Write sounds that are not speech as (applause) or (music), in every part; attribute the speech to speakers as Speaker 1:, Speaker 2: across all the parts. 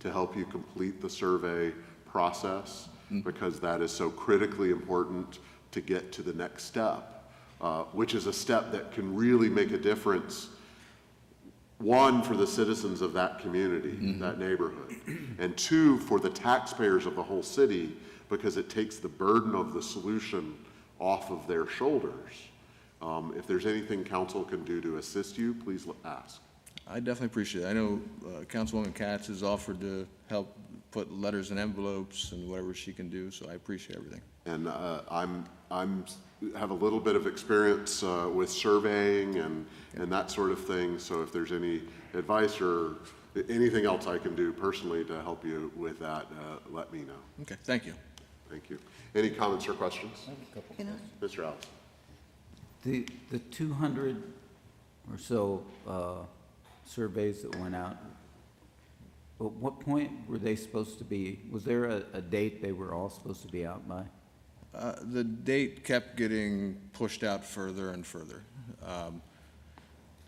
Speaker 1: to help you complete the survey process because that is so critically important to get to the next step, uh, which is a step that can really make a difference one, for the citizens of that community, that neighborhood, and two, for the taxpayers of the whole city, because it takes the burden of the solution off of their shoulders. Um, If there's anything council can do to assist you, please l- ask.
Speaker 2: I definitely appreciate it. I know uh, Councilwoman Katz has offered to help put letters in envelopes and whatever she can do, so I appreciate everything.
Speaker 1: And uh, I'm, I'm, have a little bit of experience uh, with surveying and, and that sort of thing, so if there's any advice or anything else I can do personally to help you with that, uh, let me know.
Speaker 2: Okay, thank you.
Speaker 1: Thank you. Any comments or questions?
Speaker 3: Can I?
Speaker 1: Mr. Alves?
Speaker 3: The, the 200 or so uh, surveys that went out, at what point were they supposed to be, was there a, a date they were all supposed to be out by?
Speaker 2: Uh, The date kept getting pushed out further and further. Um,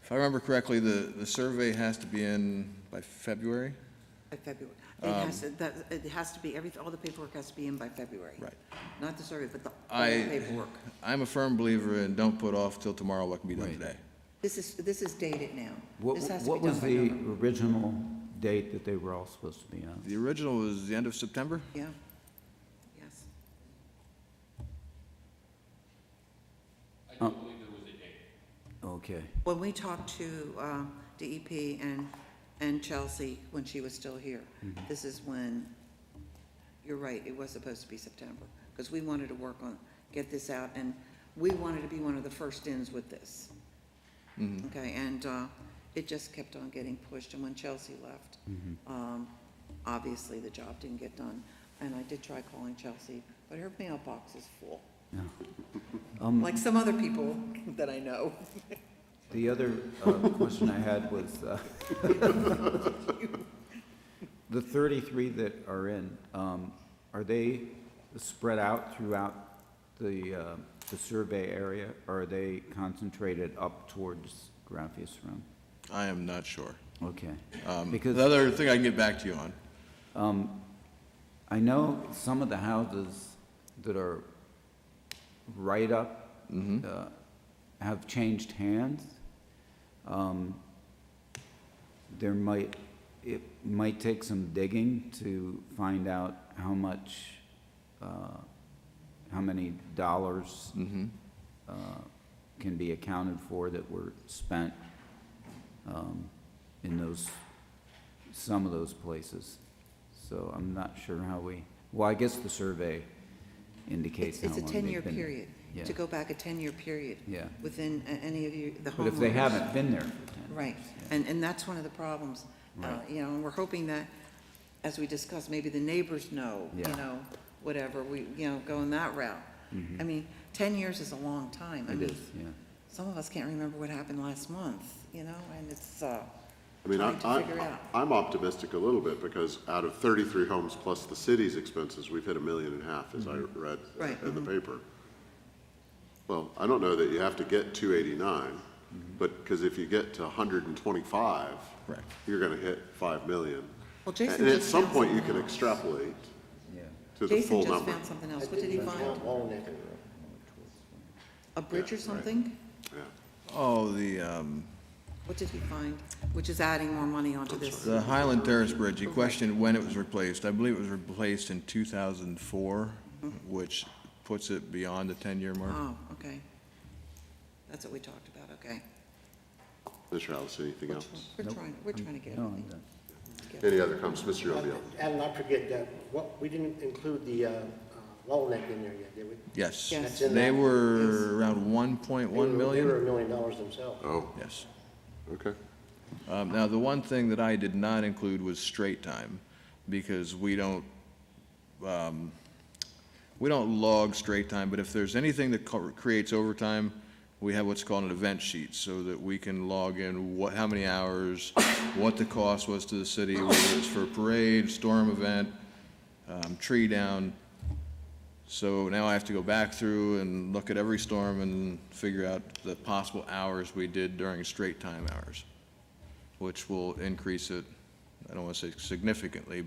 Speaker 2: If I remember correctly, the, the survey has to be in by February?
Speaker 4: By February. It has, to- that, it has to be, everything, all the paperwork has to be in by February.
Speaker 2: Right.
Speaker 4: Not the survey, but the, all the
Speaker 2: I,
Speaker 4: paperwork.
Speaker 2: I'm a firm believer in don't put off till tomorrow what can be done today.
Speaker 4: This is, this is dated now.
Speaker 3: What,
Speaker 4: This has to be
Speaker 3: what was
Speaker 4: done by
Speaker 3: the
Speaker 4: November.
Speaker 3: original date that they were all supposed to be out?
Speaker 2: The original was the end of September?
Speaker 4: Yeah, yes.
Speaker 3: Okay,
Speaker 4: When we talked to um, DEP and, and Chelsea when she was still here, this is when, you're right, it was supposed to be September, because we wanted to work on, get this out, and we wanted to be one of the first ins with this. Okay, and uh, it just kept on getting pushed, and when Chelsea left, um, obviously, the job didn't get done. And I did try calling Chelsea, but her mailbox is full,
Speaker 3: yeah.
Speaker 4: like some other people (laughs) that I know.
Speaker 3: The other uh, question I had was, uh, (laughs) the 33 that are in, um, are they spread out throughout the, uh, the survey area? Or are they concentrated up towards Grafius Room?
Speaker 2: I am not sure.
Speaker 3: Okay.
Speaker 2: Um,
Speaker 3: Because-
Speaker 2: The other thing I can get back to you on.
Speaker 3: I know some of the houses that are right up uh, have changed hands. Um, There might, it might take some digging to find out how much, uh, how many dollars uh, can be accounted for that were spent um, in those, some of those places. So I'm not sure how we, well, I guess the survey indicates
Speaker 4: It's
Speaker 3: how
Speaker 4: it's
Speaker 3: long
Speaker 4: a
Speaker 3: they've
Speaker 4: 10-year
Speaker 3: been-
Speaker 4: period,
Speaker 3: Yeah.
Speaker 4: to go back a 10-year period.
Speaker 3: Yeah.
Speaker 4: Within a- any of you, the homeowners.
Speaker 3: But if they haven't been there for ten.
Speaker 4: Right, and, and that's one of the problems, uh,
Speaker 3: Right.
Speaker 4: you know, and we're hoping that, as we discussed, maybe the neighbors know, you
Speaker 3: Yeah.
Speaker 4: know, whatever, we, you know, going that route. I mean, 10 years is a long time. I
Speaker 3: Mm-hmm. It
Speaker 4: mean,
Speaker 3: is, yeah.
Speaker 4: Some of us can't remember what happened last month, you know, and it's uh,
Speaker 1: I mean, I,
Speaker 4: trying to figure
Speaker 1: I,
Speaker 4: out.
Speaker 1: I'm optimistic a little bit because out of thirty-three homes plus the city's expenses, we've hit a million and a half, as I read
Speaker 4: Right.
Speaker 1: in the paper. Well, I don't know that you have to get two eighty-nine, but, because if you get to hundred and twenty-five,
Speaker 2: Correct.
Speaker 1: you're gonna hit five million.
Speaker 4: Well, Jason
Speaker 1: And at
Speaker 4: just
Speaker 1: some
Speaker 4: found
Speaker 1: point, you
Speaker 4: something
Speaker 1: can
Speaker 4: else.
Speaker 1: extrapolate
Speaker 3: Yeah.
Speaker 1: to the
Speaker 4: Jason
Speaker 1: full
Speaker 4: just
Speaker 1: number.
Speaker 4: found something else. What did he find? A bridge
Speaker 1: Yeah,
Speaker 4: or
Speaker 1: right.
Speaker 4: something?
Speaker 1: Yeah.
Speaker 2: Oh, the, um,
Speaker 4: What did he find? Which is adding more money onto this.
Speaker 2: The Highland Terrace Bridge, you questioned when it was replaced. I believe it was replaced in 2004, which puts it beyond the 10-year mark.
Speaker 4: Oh, okay. That's what we talked about, okay.
Speaker 1: Mr. Alice, anything
Speaker 4: We're
Speaker 1: else?
Speaker 4: try- We're trying, we're trying to get
Speaker 3: No,
Speaker 4: everything.
Speaker 3: the-
Speaker 1: Any other comments? Mr. Yonville?
Speaker 5: Adam, I forget that, what, we didn't include the uh, uh, wall neck in there yet, did we?
Speaker 2: Yes.
Speaker 4: Yes.
Speaker 5: That's in
Speaker 2: They
Speaker 5: that-
Speaker 4: Yes.
Speaker 2: were around 1.1
Speaker 5: They were a
Speaker 2: million?
Speaker 5: million dollars themselves.
Speaker 1: Oh,
Speaker 2: Yes.
Speaker 1: okay.
Speaker 2: Um, Now, the one thing that I did not include was straight time, because we don't, um, we don't log straight time, but if there's anything that co- creates overtime, we have what's called an event sheet, so that we can log in what, how many hours, what the cost was to the city, whether it's for a parade, storm event, um, tree down. So now I have to go back through and look at every storm and figure out the possible hours we did during straight time hours which will increase it, I don't want to say significantly,